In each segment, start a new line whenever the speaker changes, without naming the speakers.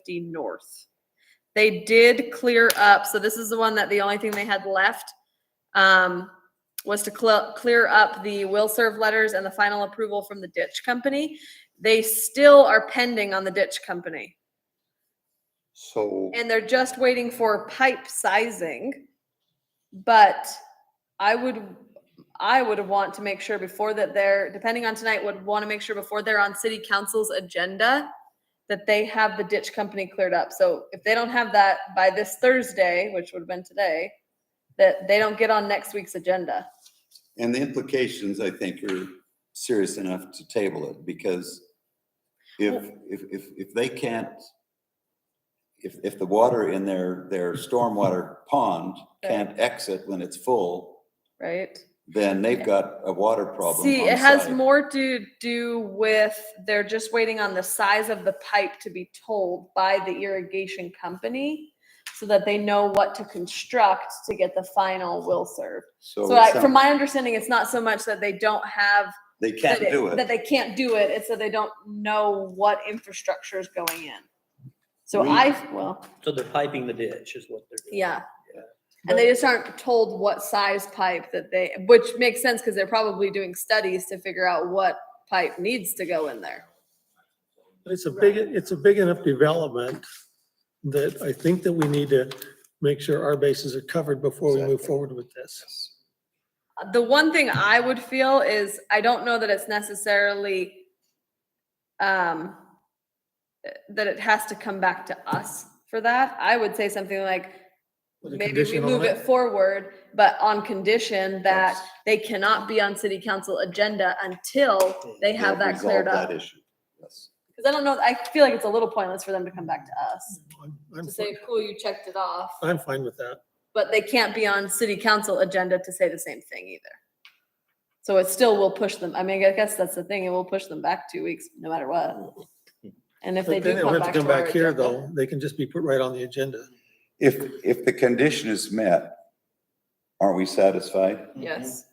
50 north. They did clear up, so this is the one that the only thing they had left um, was to cl- clear up the will serve letters and the final approval from the ditch company. They still are pending on the ditch company.
So,
And they're just waiting for pipe sizing. But I would, I would want to make sure before that they're, depending on tonight, would want to make sure before they're on city council's agenda that they have the ditch company cleared up. So if they don't have that by this Thursday, which would have been today, that they don't get on next week's agenda.
and the implications, I think, are serious enough to table it because if, if, if, if they can't, if, if the water in their, their stormwater pond can't exit when it's full,
Right?
then they've got a water problem.
See,
on
it has
site.
more to do with they're just waiting on the size of the pipe to be told by the irrigation company so that they know what to construct to get the final will serve. So
it
I,
sound-
from my understanding, it's not so much that they don't have.
They can't
that
do it.
That they can't do it. It's that they don't know what infrastructure is going in. So
We-
I, well,
So they're piping the ditch is what they're doing.
yeah. And they just aren't told what size pipe that they, which makes sense because they're probably doing studies to figure out what pipe needs to go in there.
But It's a big, it's a big enough development that I think that we need to make sure our bases are covered before we move
Exactly.
forward with this.
The one thing I would feel is I don't know that it's necessarily um that it has to come back to us for that. I would say something like
With a
maybe we
condition on
move it
it?
forward, but on condition that they cannot be on city council agenda until they have
They'll
that cleared
resolve
up.
That issue, yes.
Because I don't know, I feel like it's a little pointless for them to come back to us
I'm- I'm
to
fine-
say, cool, you checked it off.
I'm fine with that.
But they can't be on city council agenda to say the same thing either. So it still will push them, I mean, I guess that's the thing, it will push them back two weeks, no matter what. And if they
Mm-hmm. But
do
then they'll
come
have to
back to
come
our
back here,
agenda.
though. They can just be put right on the agenda.
If, if the condition is met, aren't we satisfied?
Yes,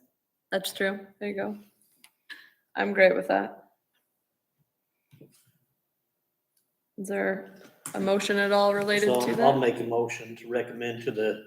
that's true, there you go. I'm great with that. Is there a motion at all related
So
to
I'll
that,
make a motion to recommend to the,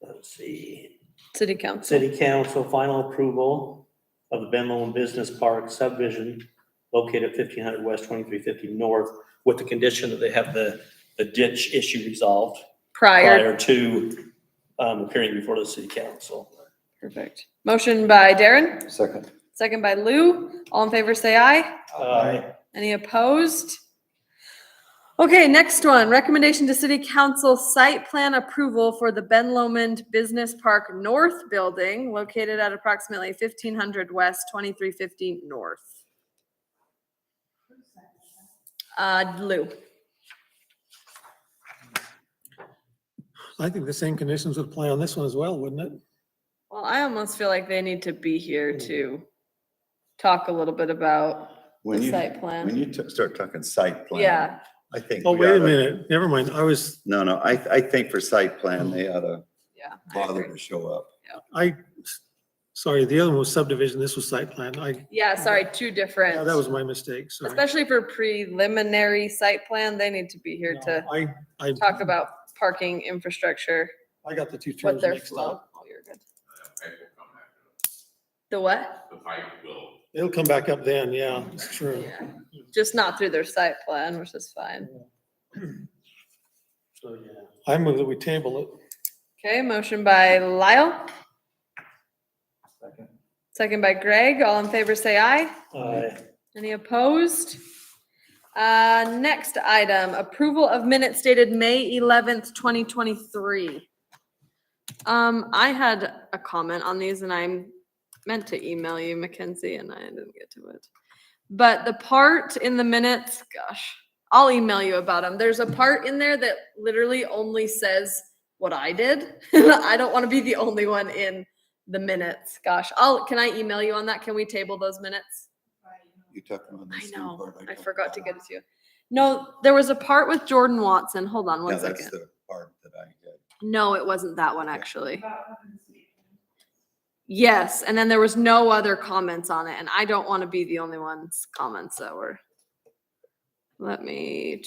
let's see,
city council?
city council final approval of the Ben Lomond Business Park subdivision located at fifteen hundred west, twenty-three fifty north, with the condition that they have the, the ditch issue resolved
Prior,
prior to, um, appearing before the city council.
perfect. Motion by Darren?
Second.
Second by Lou. All in favor, say aye.
Uh,
Any opposed? Okay, next one, recommendation to city council site plan approval for the Ben Lomond Business Park North Building located at approximately fifteen hundred west, twenty-three fifty north. Uh, Lou,
I think the same conditions would apply on this one as well, wouldn't it?
well, I almost feel like they need to be here to talk a little bit about
When
the
you,
site plan.
when you t- start talking site plan.
Yeah,
I think.
Oh,
we
wait a
oughta-
minute. Never mind. I was,
No, no, I, I think for site plan, they ought to
yeah. I
bother
agree.
to show up.
I, sorry, the other one was subdivision. This was site plan. I,
Yeah, sorry, two different.
yeah, that was my mistake. Sorry.
Especially for preliminary site plan, they need to be here to
No, I, I,
talk about parking infrastructure,
I got the two
what
terms
their
mixed
flow.
up.
Oh, you're good.
pipe will come back up.
The what?
The pipe will,
It'll come back up then. Yeah, it's true.
Yeah, Just not through their site plan, which is fine.
So, yeah.
I move that we table it.
Okay, motion by Lyle. Second by Greg. All in favor, say aye.
Uh,
Any opposed? Uh, next item, approval of minutes dated May eleventh, twenty twenty-three. Um, I had a comment on these and I meant to email you, Mackenzie, and I didn't get to it. But the part in the minutes, gosh, I'll email you about them. There's a part in there that literally only says what I did. I don't want to be the only one in the minutes. Gosh, I'll, can I email you on that? Can we table those minutes?
You talking about the
I
same
know,
part oh,
I
talked
forgot to
about?
get it to you. No, there was a part with Jordan Watson. Hold on
Yeah,
one
that's
second.
the part that I did.
No, it wasn't that one, actually. Yes, and then there was no other comments on it, and I don't want to be the only one's comments that were. Let me.